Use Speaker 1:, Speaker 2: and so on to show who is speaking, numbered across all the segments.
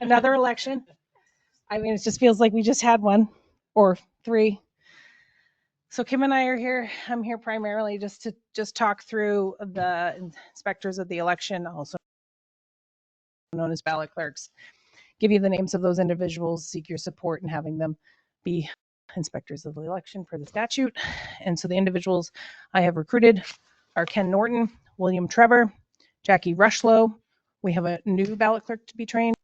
Speaker 1: another election. I mean, it just feels like we just had one or three. So Kim and I are here, I'm here primarily just to, just talk through the inspectors of the election, also known as ballot clerks. Give you the names of those individuals, seek your support in having them be inspectors of the election for the statute. And so the individuals I have recruited are Ken Norton, William Trevor, Jackie Rushlow. We have a new ballot clerk to be trained.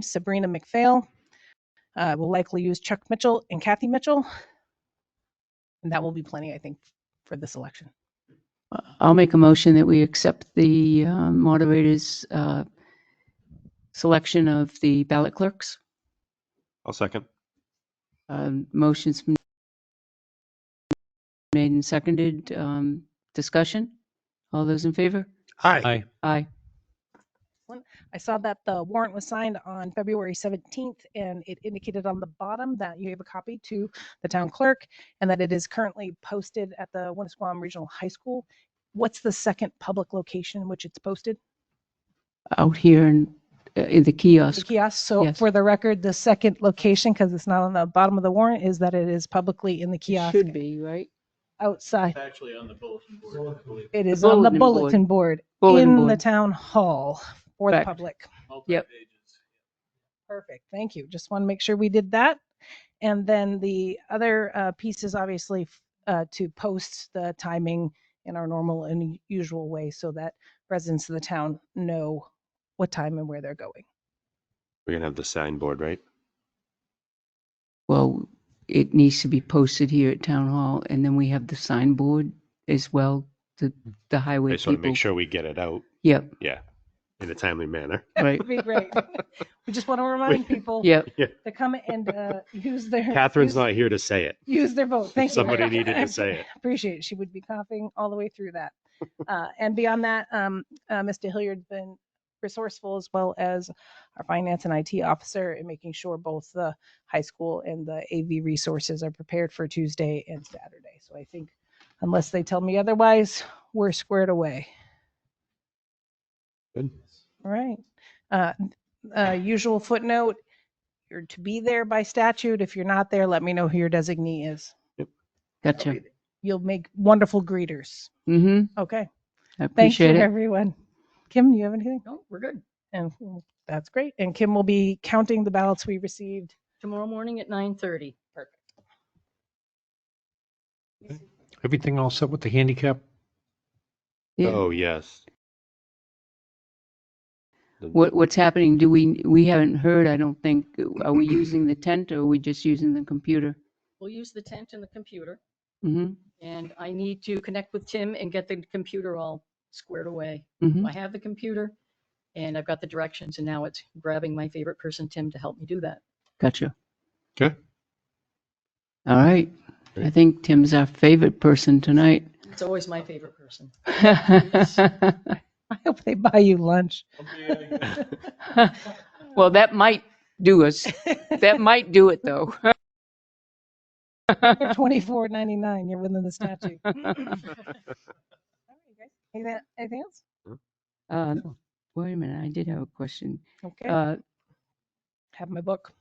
Speaker 1: Sabrina McPhail. Uh, We'll likely use Chuck Mitchell and Kathy Mitchell. And that will be plenty, I think, for this election.
Speaker 2: I'll make a motion that we accept the uh, moderator's uh, selection of the ballot clerks.
Speaker 3: I'll second.
Speaker 2: Um, Motion's been made and seconded. Um, Discussion? All those in favor?
Speaker 3: Aye.
Speaker 2: Aye.
Speaker 1: I saw that the warrant was signed on February 17th, and it indicated on the bottom that you gave a copy to the town clerk and that it is currently posted at the Winnisquam Regional High School. What's the second public location in which it's posted?
Speaker 2: Out here in uh, in
Speaker 1: The
Speaker 2: the kiosk.
Speaker 1: kiosk. So
Speaker 2: Yes.
Speaker 1: for the record, the second location, because it's not on the bottom of the warrant, is that it is publicly in the kiosk
Speaker 2: Should be, right?
Speaker 1: outside.
Speaker 4: It's actually on the bulletin board, I believe,
Speaker 1: It is on the
Speaker 2: bulletin
Speaker 1: bulletin
Speaker 2: board.
Speaker 1: board
Speaker 2: Bulletin
Speaker 1: in the
Speaker 2: board.
Speaker 1: town hall for the
Speaker 2: Correct.
Speaker 1: public.
Speaker 4: multiple
Speaker 2: Yep.
Speaker 4: pages.
Speaker 1: Perfect, thank you. Just want to make sure we did that. And then the other uh, piece is obviously f- uh, to post the timing in our normal and usual way so that residents of the town know what time and where they're going.
Speaker 3: We're gonna have the signboard, right?
Speaker 2: Well, it needs to be posted here at Town Hall, and then we have the signboard as well, the the
Speaker 3: I
Speaker 2: highway
Speaker 3: just want to
Speaker 2: people.
Speaker 3: make sure we get it out
Speaker 2: Yep,
Speaker 3: in a timely manner.
Speaker 2: right,
Speaker 1: Would be great. We just want to remind people
Speaker 2: yep.
Speaker 1: to come and uh, use their.
Speaker 3: Catherine's
Speaker 1: use-
Speaker 3: not here to say it.
Speaker 1: Use their vote, thank you.
Speaker 3: Somebody needed to say it.
Speaker 1: appreciate it. She would be coughing all the way through that. Uh, and beyond that, um, uh, Mr. Hilliard's been resourceful as well as our finance and IT officer in making sure both the high school and the AV resources are prepared for Tuesday and Saturday. So I think unless they tell me otherwise, we're squared away. All right. Uh, uh, usual footnote, you're to be there by statute. If you're not there, let me know who your designee is.
Speaker 2: Gotcha.
Speaker 1: You'll make wonderful greeters.
Speaker 2: Mm-hmm.
Speaker 1: Okay.
Speaker 2: I
Speaker 1: Thank you,
Speaker 2: appreciate it.
Speaker 1: everyone. Kim, do you have anything?
Speaker 5: No, we're good.
Speaker 1: And mm, that's great. And Kim will be counting the ballots we received.
Speaker 5: Tomorrow morning at nine thirty. Perfect.
Speaker 6: Everything all set with the handicap?
Speaker 2: Yeah.
Speaker 3: Oh, yes. The-
Speaker 2: What, what's happening? Do we, we haven't heard, I don't think, are we using the tent or are we just using the computer?
Speaker 5: We'll use the tent and the computer,
Speaker 2: hmm
Speaker 5: and I need to connect with Tim and get the computer all squared away.
Speaker 2: hmm
Speaker 5: I have the computer, and I've got the directions, and now it's grabbing my favorite person, Tim, to help me do that.
Speaker 2: Gotcha.
Speaker 3: Okay.
Speaker 2: All right. I
Speaker 3: Great.
Speaker 2: think Tim's our favorite person tonight.
Speaker 5: It's always my favorite person.
Speaker 1: I hope they buy you lunch.
Speaker 2: Well, that might do us, that might do it though.
Speaker 1: Twenty-four ninety-nine, you're within the statute. All right, you guys. Anything anything else?
Speaker 2: Uh, Wait a minute, I did have a question.
Speaker 1: Okay,
Speaker 2: Uh,
Speaker 1: have my book.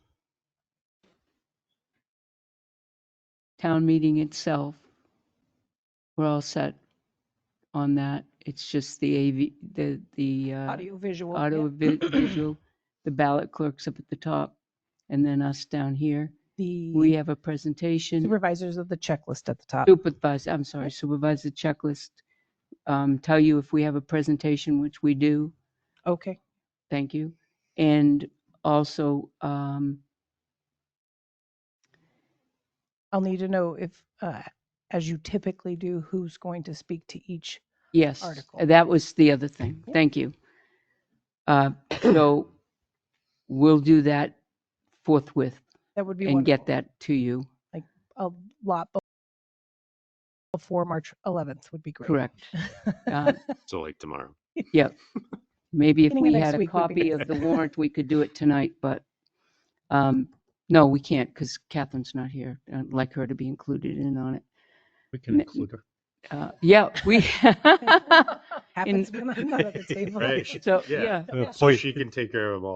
Speaker 2: town meeting itself, we're all set on that. It's just the AV, the, the. uh,
Speaker 1: Audio visual.
Speaker 2: auto vi- visual, the ballot clerks up at the top, and then us down here. We
Speaker 1: The
Speaker 2: have a presentation,
Speaker 1: supervisors of the checklist at the top.
Speaker 2: supervisor, I'm sorry, supervisor checklist, um, tell you if we have a presentation, which we do,
Speaker 1: Okay,
Speaker 2: thank you. And also, um,
Speaker 1: I'll need to know if, uh, as you typically do, who's going to speak to each.
Speaker 2: yes,
Speaker 1: Article.
Speaker 2: that was the other thing,
Speaker 1: Yeah.
Speaker 2: thank you. Uh, So we'll do that forthwith
Speaker 1: That would be
Speaker 2: and get
Speaker 1: wonderful.
Speaker 2: that to you,
Speaker 1: A lot be- before March eleventh would be great.
Speaker 2: correct? Uh,
Speaker 3: So like tomorrow.
Speaker 2: Maybe if
Speaker 1: Beginning of
Speaker 2: we
Speaker 1: next
Speaker 2: had a
Speaker 1: week would be
Speaker 2: copy
Speaker 1: good.
Speaker 2: of the warrant, we could do it tonight, but, um, no, we can't because Catherine's not here. I'd like her to be included in on it.
Speaker 6: We
Speaker 2: N-
Speaker 6: can include her.
Speaker 2: Uh, yeah, we,
Speaker 1: Happens when I'm not at the table.
Speaker 3: Right.
Speaker 2: so,
Speaker 3: Yeah.
Speaker 2: yeah.
Speaker 6: Uh,
Speaker 3: So
Speaker 6: Boy,
Speaker 3: she can take care of them all.